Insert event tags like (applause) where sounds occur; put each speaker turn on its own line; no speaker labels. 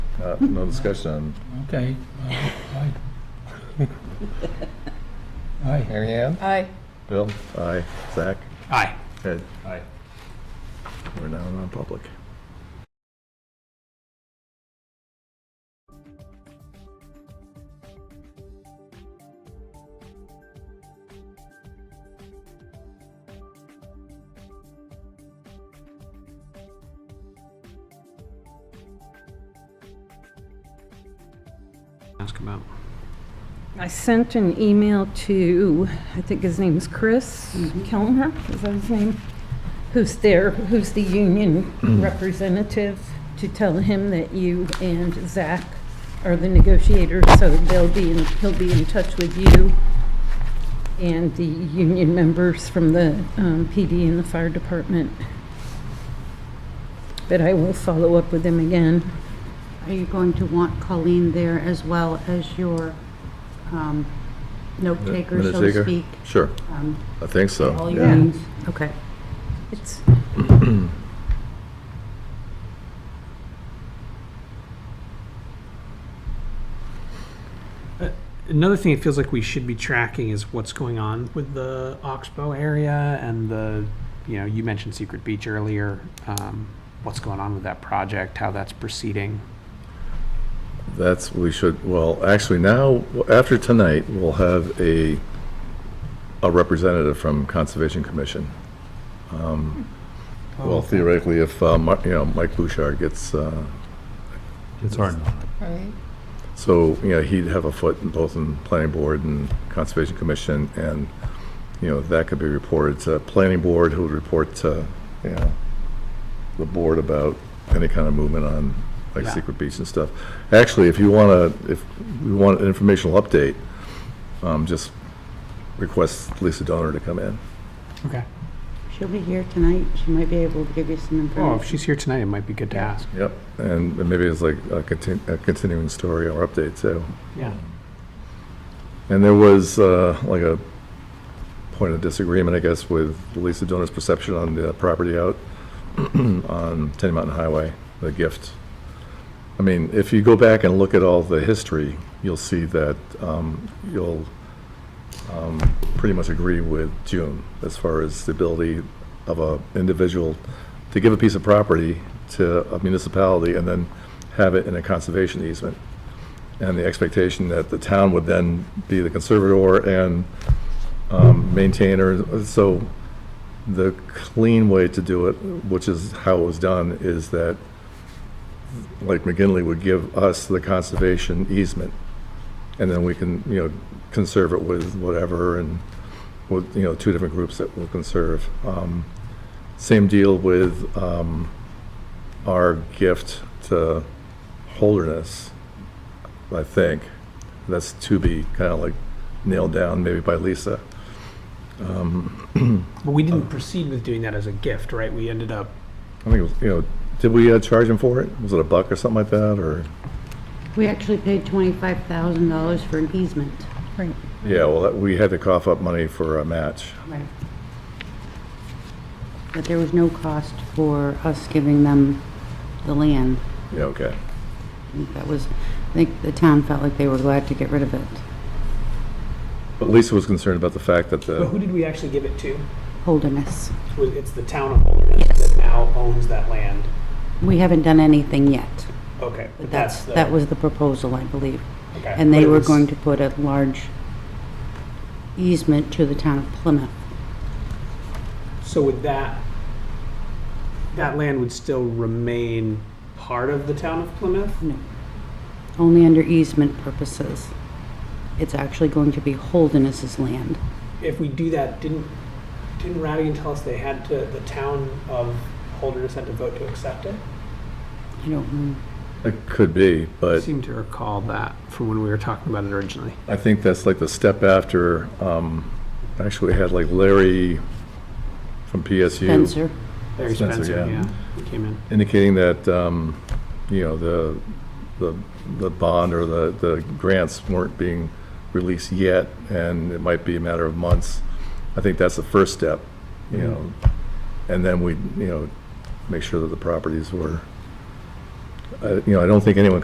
Uh, No discussion.
Okay. uh, aye. Aye.
Mary Ann?
Aye.
Bill? Aye. Zach?
Aye.
Ed?
Aye.
We're now non-public.
Ask about.
I sent an email to, I think his name is Chris Kellner, is that his name? Who's there, who's the union representative, to tell him that you and Zach are the negotiators, so they'll be, in- he'll be in touch with you and the union members from the um, PD and the fire department. But I will follow up with them again.
Are you going to want Colleen there as well as your um, note taker, so
Minute
to
taker?
speak?
Sure,
Um,
I think so.
All
yeah.
your needs? Okay.
It's,
Another thing it feels like we should be tracking is what's going on with the Oxbow area and the, you know, you mentioned Secret Beach earlier. Um, what's going on with that project, how that's proceeding?
That's, we should, well, actually now, after tonight, we'll have a, a representative from Conservation Commission. Um, Well, theoretically, if, uh, Mi- you know, Mike Bouchard gets, uh,
It's hard.
Right.
so, you know, he'd have a foot in both in Planning Board and Conservation Commission, and, you know, that could be reported to Planning Board, who would report to, you know, the board about any kind of movement on, like,
Yeah.
secret beach and stuff. Actually, if you want to, if we want an informational update, um, just request Lisa Donner to come in.
Okay.
She'll be here tonight. She might be able to give you some
Oh, if
information.
she's here tonight, it might be good to ask.
Yep, and and maybe it's like a contin- a continuing story or update, too.
Yeah.
And there was uh, like a point of disagreement, I guess, with Lisa Donner's perception on the property out (clears throat) on Tenny Mountain Highway, the gift. I mean, if you go back and look at all the history, you'll see that um, you'll um, pretty much agree with June as far as the ability of a individual to give a piece of property to a municipality and then have it in a conservation easement and the expectation that the town would then be the conservator and um, maintainer. So the clean way to do it, which is how it was done, is that, like McGinley would give us the conservation easement, and then we can, you know, conserve it with whatever, and with, you know, two different groups that will conserve. Um, Same deal with um, our gift to Holderness. I think. That's to be kind of like nailed down maybe by Lisa.
But we didn't proceed with doing that as a gift, right? We ended up,
I think it was, you know, did we uh, charge him for it? Was it a buck or something like that, or?
We actually paid $25,000 for an easement.
right.
Yeah, well, that- we had to cough up money for a match.
Right. But there was no cost for us giving them the land.
Yeah, okay.
I think That was, I think the town felt like they were glad to get rid of it.
But Lisa was concerned about the fact that
but who
the,
did we actually give it to?
Holderness.
Was- It's the town of Holderness that now owns that land.
We haven't done anything yet.
Okay.
But that's, that was the proposal, I believe.
okay.
And
But
they
it
were
was-
going to put a large easement to the town of Plymouth.
So would that, that land would still remain part of the town of Plymouth?
Only under easement purposes. It's actually going to be Holderness's land.
If we do that, didn't, didn't Radigan tell us they had to, the town of Holderness had to vote to accept it?
I don't,
it could be,
I
but
seem to recall that from when we were talking about it originally.
I think that's like the step after, um, actually we had like Larry from PSU.
Spencer,
Larry
Spencer,
Spencer,
yeah.
yeah, he came in.
indicating that, um, you know, the, the, the bond or the, the grants weren't being released yet, and it might be a matter of months. I think that's the first step, you know, and then we, you know, make sure that the properties were, I- you know, I don't think anyone